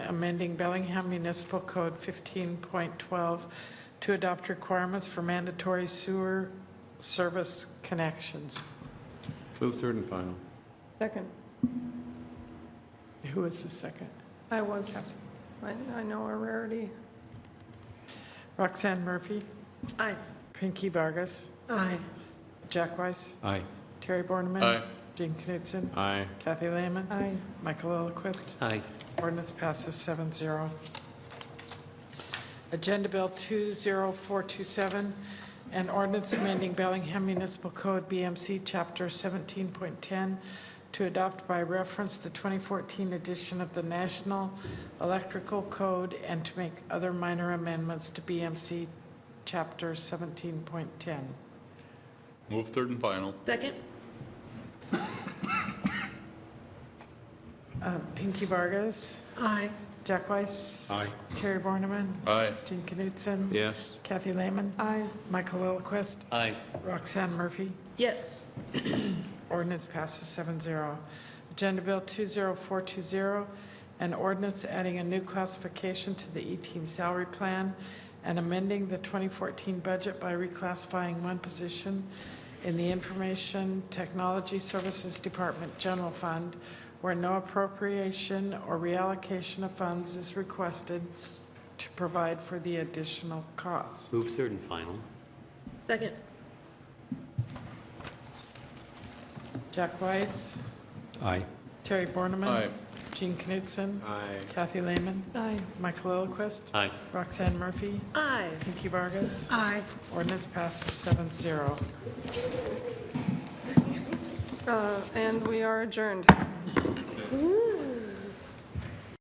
amending Bellingham Municipal Code 15.12 to adopt requirements for mandatory sewer service connections. Move third and final. Second. Who is the second? I was, I I know a rarity. Roxanne Murphy, Aye. Pinky Vargas, Aye. Jack Weiss, Aye. Terry Borneman. Aye. Jean Knutson, Aye. Kathy Lehman, Aye. Michael Lillquist. Aye. Ordinance passes 7-0. Agenda Bill 20427, an ordinance amending Bellingham Municipal Code BMC Chapter 17.10 to adopt by reference the 2014 edition of the National Electrical Code and to make other minor amendments to BMC Chapter 17.10. Move third and final. Second. Uh, Pinky Vargas, Aye. Jack Weiss. Aye. Terry Borneman, Aye. Jean Knutson. Yes. Kathy Lehman, Aye. Michael Lillquist, Aye. Roxanne Murphy. Yes. Ordinance passes 7-0. Agenda Bill 20420, an ordinance adding a new classification to the E-team salary plan and amending the 2014 budget by reclassifying one position in the Information Technology Services Department General Fund where no appropriation or reallocation of funds is requested to provide for the additional cost. Move third and final. Second. Jack Weiss, Aye. Terry Borneman. Aye. Jean Knutson. Aye. Kathy Lehman. Aye. Michael Lillquist. Aye. Roxanne Murphy. Aye. Pinky Vargas. Aye. Ordinance passes seven zero. And Uh, we are adjourned.